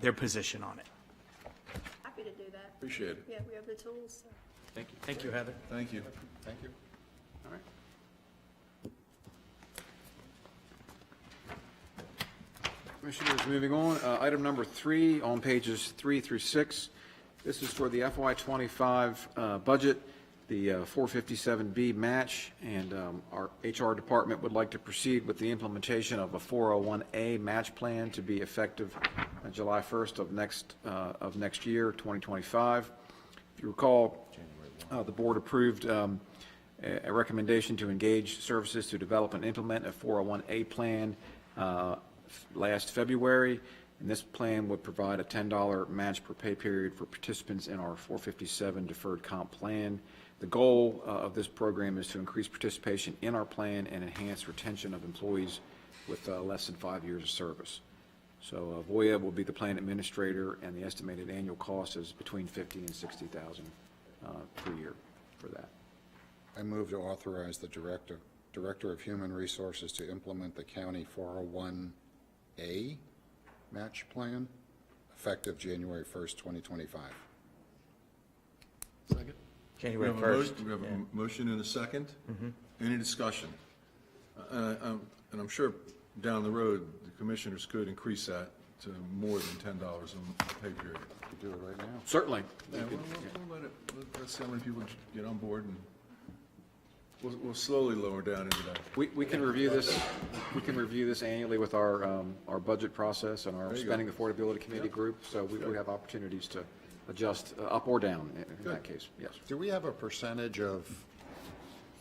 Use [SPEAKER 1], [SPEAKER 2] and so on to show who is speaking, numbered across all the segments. [SPEAKER 1] their position on it.
[SPEAKER 2] Happy to do that.
[SPEAKER 3] Appreciate it.
[SPEAKER 2] Yeah, we have the tools, so.
[SPEAKER 4] Thank you.
[SPEAKER 1] Thank you, Heather.
[SPEAKER 3] Thank you. Thank you.
[SPEAKER 4] All right.
[SPEAKER 3] Commissioners, moving on, uh, item number three on pages three through six. This is for the FY twenty-five, uh, budget, the uh, four fifty-seven B match, and, um, our HR department would like to proceed with the implementation of a four oh one A match plan to be effective uh, July first of next, uh, of next year, twenty twenty-five. If you recall, uh, the board approved, um, a a recommendation to engage services to develop and implement a 401A plan uh, f- last February, and this plan would provide a $10 match per pay period for participants in our 457 deferred comp plan. The goal uh, of this program is to increase participation in our plan and enhance retention of employees with uh, less than five years of service. So uh, Voya will be the plan administrator, and the estimated annual cost is between 50 and 60,000 uh, per year for that.
[SPEAKER 5] I move to authorize the Director, Director of Human Resources to implement the county 401A match plan effective January 1st, 2025.
[SPEAKER 3] We
[SPEAKER 1] January
[SPEAKER 3] have a mo-
[SPEAKER 1] 1st.
[SPEAKER 3] We have a motion and a 2nd
[SPEAKER 5] Mm-hmm.
[SPEAKER 3] Any discussion? Uh, um, And I'm sure down the road, the commissioners could increase that to more than ten dollars a pay period.
[SPEAKER 5] You do it right now.
[SPEAKER 3] Certainly. Let's see how many people get on board and we'll, we'll slowly lower down into that.
[SPEAKER 6] We, we can review this, we can review this annually with our, um, our budget process and our
[SPEAKER 3] There you go.
[SPEAKER 6] spending affordability committee group, so we, we have opportunities to adjust uh, up or down in- in that
[SPEAKER 3] Good.
[SPEAKER 6] case, yes.
[SPEAKER 5] Do we have a percentage of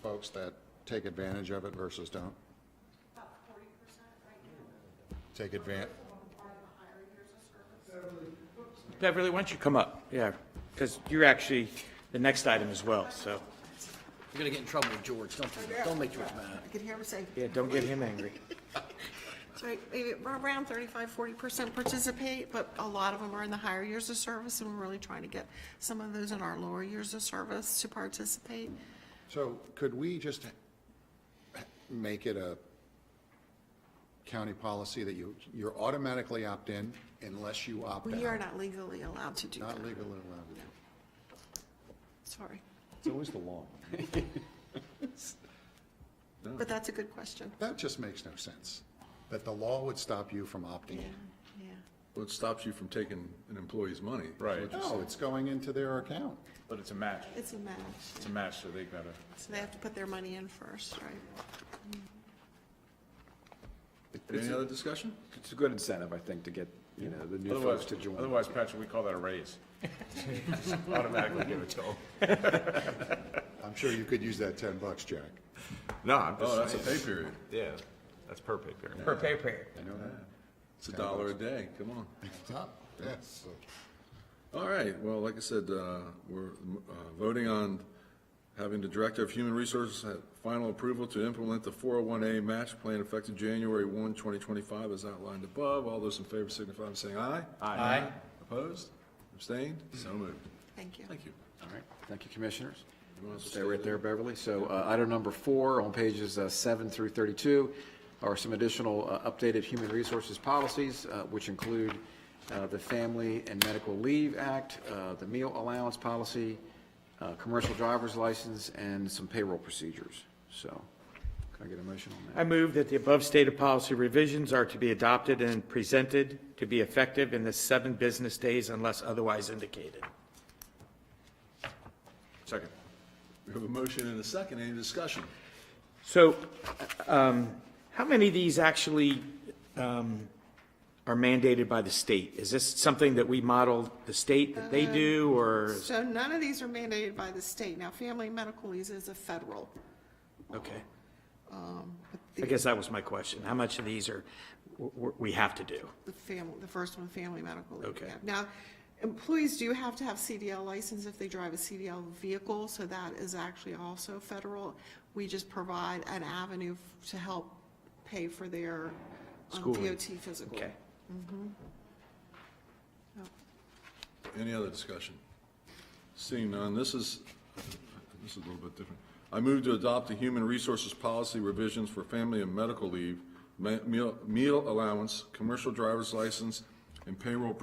[SPEAKER 5] folks that take advantage of it versus don't? About 40% right now. Take advantage.
[SPEAKER 1] Beverly, why don't you come up? Yeah, because you're actually the next item as well, so.
[SPEAKER 7] You're gonna get in trouble with George, don't do that, don't make George mad.
[SPEAKER 8] I could hear him say,
[SPEAKER 1] Yeah, don't get him angry.
[SPEAKER 8] so maybe we're around 35, 40% participate, but a lot of them are in the higher years of service, and we're really trying to get some of those in our lower years of service to participate.
[SPEAKER 5] So could we just make it a county policy that you, you're automatically opt in unless you opt out?
[SPEAKER 8] We are not legally allowed to do that,
[SPEAKER 5] Not legally allowed to do.
[SPEAKER 8] sorry.
[SPEAKER 5] It's always the law.
[SPEAKER 8] But that's a good question.
[SPEAKER 5] That just makes no sense, that the law would stop you from opting in.
[SPEAKER 8] Yeah.
[SPEAKER 9] Well, it stops you from taking an employee's money. is what
[SPEAKER 4] Right.
[SPEAKER 9] you're
[SPEAKER 5] No,
[SPEAKER 9] saying.
[SPEAKER 5] it's going into their account.
[SPEAKER 4] But it's a match,
[SPEAKER 8] It's a match,
[SPEAKER 4] it's a match, so they gotta.
[SPEAKER 8] so they have to put their money in first, right?
[SPEAKER 3] Any other discussion?
[SPEAKER 6] It's a good incentive, I think, to get, you know, the new folks
[SPEAKER 4] Otherwise,
[SPEAKER 6] to join.
[SPEAKER 4] otherwise, Patrick, we call that a raise. Just Automatically give it to them.
[SPEAKER 5] I'm sure you could use that 10 bucks, Jack.
[SPEAKER 4] No, I'm
[SPEAKER 9] Oh, that's a pay period.
[SPEAKER 4] yeah, that's perfect.
[SPEAKER 1] Per pay period.
[SPEAKER 9] It's a dollar a day, come on.
[SPEAKER 5] It's up, yes.
[SPEAKER 9] All right, well, like I said, uh, we're uh, voting on having the Director of Human Resources have final approval to implement the 401A match plan effective January 1, 2025, as outlined above. All those in favor signify by saying aye.
[SPEAKER 1] Aye.
[SPEAKER 9] Opposed? Abstained? So moved.
[SPEAKER 8] Thank you.
[SPEAKER 9] Thank you.
[SPEAKER 6] All right, thank you, commissioners.
[SPEAKER 9] You want us to
[SPEAKER 6] Stay right there, Beverly. So uh, item number four on pages uh, seven through 32 are some additional uh, updated human resources policies, uh, which include uh, the Family and Medical Leave Act, uh, the meal allowance policy, uh, commercial driver's license, and some payroll procedures. So can I get a motion on that?
[SPEAKER 1] I move that the above stated policy revisions are to be adopted and presented to be effective in the seven business days unless otherwise indicated.
[SPEAKER 4] Second.
[SPEAKER 9] We have a motion and a second, any discussion?
[SPEAKER 1] So, um, how many of these actually, um, are mandated by the state? Is this something that we model the state that they do, or,
[SPEAKER 8] So none of these are mandated by the state. Now, family medical leave is a federal.
[SPEAKER 1] okay?
[SPEAKER 8] Um, but
[SPEAKER 1] I
[SPEAKER 8] the-
[SPEAKER 1] guess that was my question. How much of these are, w- w- we have to do?
[SPEAKER 8] The family, the first one, family medical leave.
[SPEAKER 1] Okay.
[SPEAKER 8] yeah. Now, employees do have to have CDL license if they drive a CDL vehicle, so that is actually also federal. We just provide an avenue f- to help pay for their um,
[SPEAKER 1] Schooling.
[SPEAKER 8] DOT physical.
[SPEAKER 1] Okay.
[SPEAKER 9] Any other discussion? Seeing none, this is, this is a little bit different. I move to adopt the human resources policy revisions for family and medical leave, me- meal, meal allowance, commercial driver's license, and payroll